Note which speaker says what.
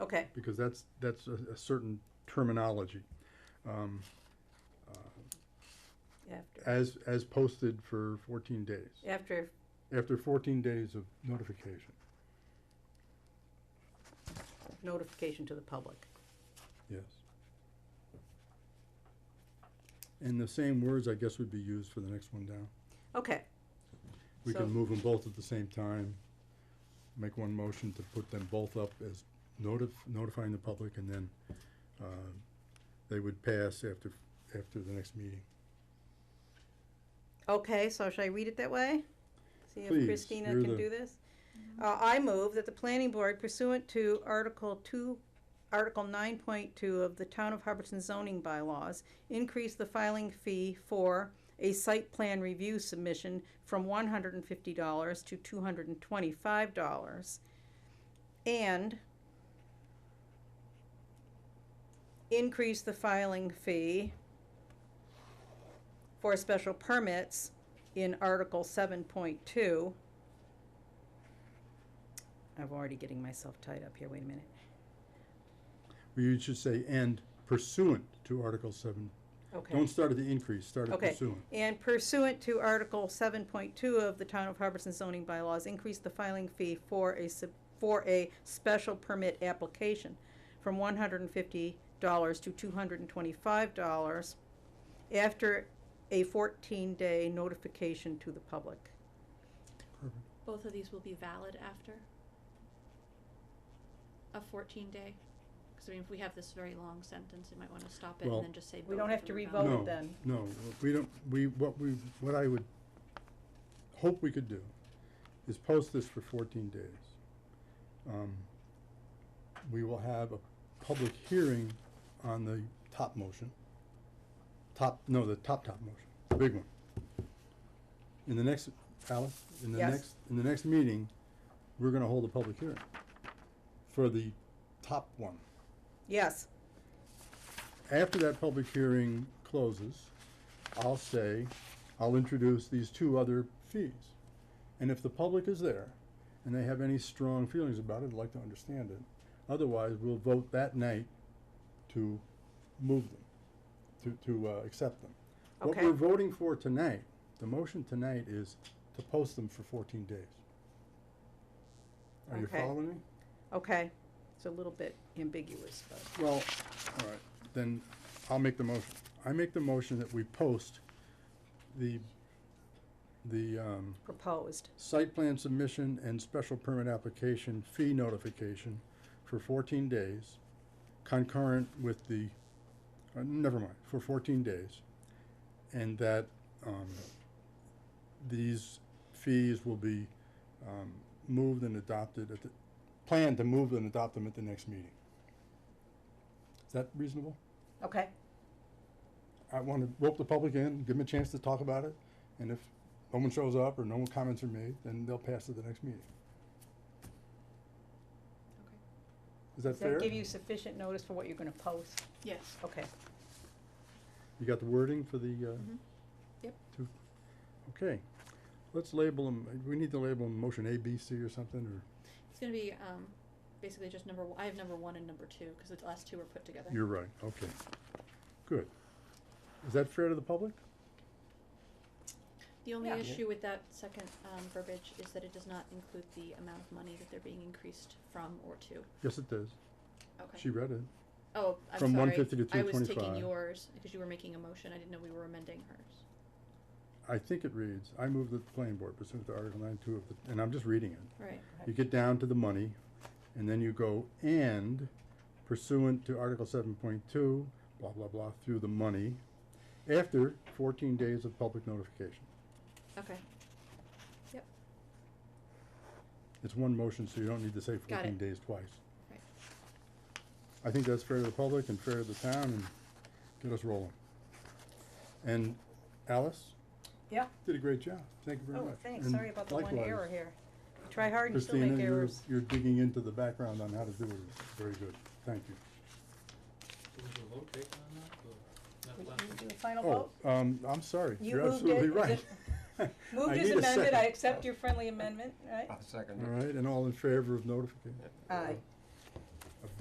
Speaker 1: Okay,
Speaker 2: because that's, that's a, a certain terminology. Um,
Speaker 1: after,
Speaker 2: as, as posted for fourteen days,
Speaker 1: after,
Speaker 2: after fourteen days of notification,
Speaker 1: notification to the public.
Speaker 2: yes. And the same words, I guess, would be used for the next one down.
Speaker 1: Okay,
Speaker 2: We
Speaker 1: So-
Speaker 2: can move them both at the same time, make one motion to put them both up as notif- notifying the public, and then, um, they would pass after, after the next meeting.
Speaker 1: okay, so should I read it that way? See
Speaker 2: Please,
Speaker 1: if Christina
Speaker 2: you're
Speaker 1: can
Speaker 2: the-
Speaker 1: do this? Uh, I move that the planning board pursuant to Article two, Article nine point two of the Town of Hubbardson zoning bylaws, increase the filing fee for a site plan review submission from one hundred and fifty dollars to two hundred and twenty-five dollars. And increase the filing fee for special permits in Article seven point two. I'm already getting myself tied up here, wait a minute.
Speaker 2: You should say, and pursuant to Article seven.
Speaker 1: Okay.
Speaker 2: Don't start at the increase, start at
Speaker 1: Okay.
Speaker 2: pursuant.
Speaker 1: And pursuant to Article seven point two of the Town of Hubbardson zoning bylaws, increase the filing fee for a sub, for a special permit application from one hundred and fifty dollars to two hundred and twenty-five dollars after a fourteen-day notification to the public.
Speaker 2: Perfect.
Speaker 3: Both of these will be valid after a fourteen day, cause I mean, if we have this very long sentence, you might wanna stop it
Speaker 2: Well-
Speaker 3: and then just say.
Speaker 1: We don't
Speaker 3: both
Speaker 1: have
Speaker 3: of
Speaker 1: to
Speaker 3: them are
Speaker 1: Vote revote it
Speaker 2: No,
Speaker 3: valid.
Speaker 1: then.
Speaker 2: No, we don't, we, what we, what I would hope we could do is post this for fourteen days. Um, We will have a public hearing on the top motion, top, no, the top, top motion, the big one. In the next, Alice, in the
Speaker 1: Yes.
Speaker 2: next, in the next meeting, we're gonna hold a public hearing for the top one.
Speaker 1: Yes,
Speaker 2: after that public hearing closes, I'll say, I'll introduce these two other fees. And if the public is there and they have any strong feelings about it, I'd like to understand it. Otherwise, we'll vote that night to move them, to, to, uh, accept them. What
Speaker 1: Okay.
Speaker 2: we're voting for tonight, the motion tonight is to post them for fourteen days. Are you
Speaker 1: Okay.
Speaker 2: following me?
Speaker 1: okay, it's a little bit ambiguous, but.
Speaker 2: Well, all right, then I'll make the motion. I make the motion that we post the, the, um,
Speaker 1: proposed.
Speaker 2: site plan submission and special permit application fee notification for fourteen days concurrent with the, uh, never mind, for fourteen days. And that, um, these fees will be, um, moved and adopted at the, planned to move and adopt them at the next meeting. Is that reasonable?
Speaker 1: Okay.
Speaker 2: I want to rope the public in, give them a chance to talk about it, and if no one shows up or no comments are made, then they'll pass it the next meeting. Is that
Speaker 1: Does that
Speaker 2: fair?
Speaker 1: give you sufficient notice for what you're gonna post?
Speaker 3: Yes.
Speaker 1: Okay.
Speaker 2: You got the wording for the, uh?
Speaker 3: Mhm. Yep.
Speaker 2: two- Okay, let's label them, we need to label them motion A, B, C or something, or,
Speaker 3: It's gonna be, um, basically just number, one- I have number one and number two, cause the last two were put together.
Speaker 2: you're right, okay. Good. Is that fair to the public?
Speaker 3: The only
Speaker 1: Yeah.
Speaker 3: issue with that second, um, verbiage is that it does not include the amount of money that they're being increased from or to,
Speaker 2: Yes, it does.
Speaker 3: okay?
Speaker 2: She read it.
Speaker 3: Oh, I'm sorry.
Speaker 2: From 150 to
Speaker 3: I was
Speaker 2: 225.
Speaker 3: taking yours, because you were making a motion, I didn't know we were amending hers.
Speaker 2: I think it reads, I move that the planning board pursuant to Article nine two of the, and I'm just reading it.
Speaker 3: Right,
Speaker 2: You get down to the money, and then you go and pursuant to Article seven point two, blah, blah, blah, through the money, after fourteen days of public notification.
Speaker 3: okay,
Speaker 2: It's one motion, so you don't need to say
Speaker 3: Got
Speaker 2: fourteen
Speaker 3: it.
Speaker 2: days twice.
Speaker 3: Right.
Speaker 2: I think that's fair to the public and fair to the town, and get us rolling. And Alice?
Speaker 1: Yeah.
Speaker 2: Did a great job, thank you very
Speaker 1: Oh,
Speaker 2: much.
Speaker 1: thanks,
Speaker 2: And
Speaker 1: sorry about the one
Speaker 2: likewise,
Speaker 1: error here. You Try hard and still
Speaker 2: Christina,
Speaker 1: make
Speaker 2: you're,
Speaker 1: errors.
Speaker 2: you're digging into the background on how to do it, It's very good, thank you.
Speaker 4: Was there a vote taken on that, or
Speaker 1: Would
Speaker 4: not
Speaker 1: you
Speaker 4: last?
Speaker 1: do a final
Speaker 2: Oh,
Speaker 1: vote?
Speaker 2: um, I'm sorry,
Speaker 1: You
Speaker 2: you're
Speaker 1: moved
Speaker 2: absolutely
Speaker 1: it.
Speaker 2: right. I
Speaker 1: Moved as
Speaker 2: need a
Speaker 1: amended, I
Speaker 2: second.
Speaker 1: accept your friendly amendment, right?
Speaker 5: I'll second
Speaker 2: All
Speaker 5: it.
Speaker 2: right, and all in favor of notification?
Speaker 1: Aye.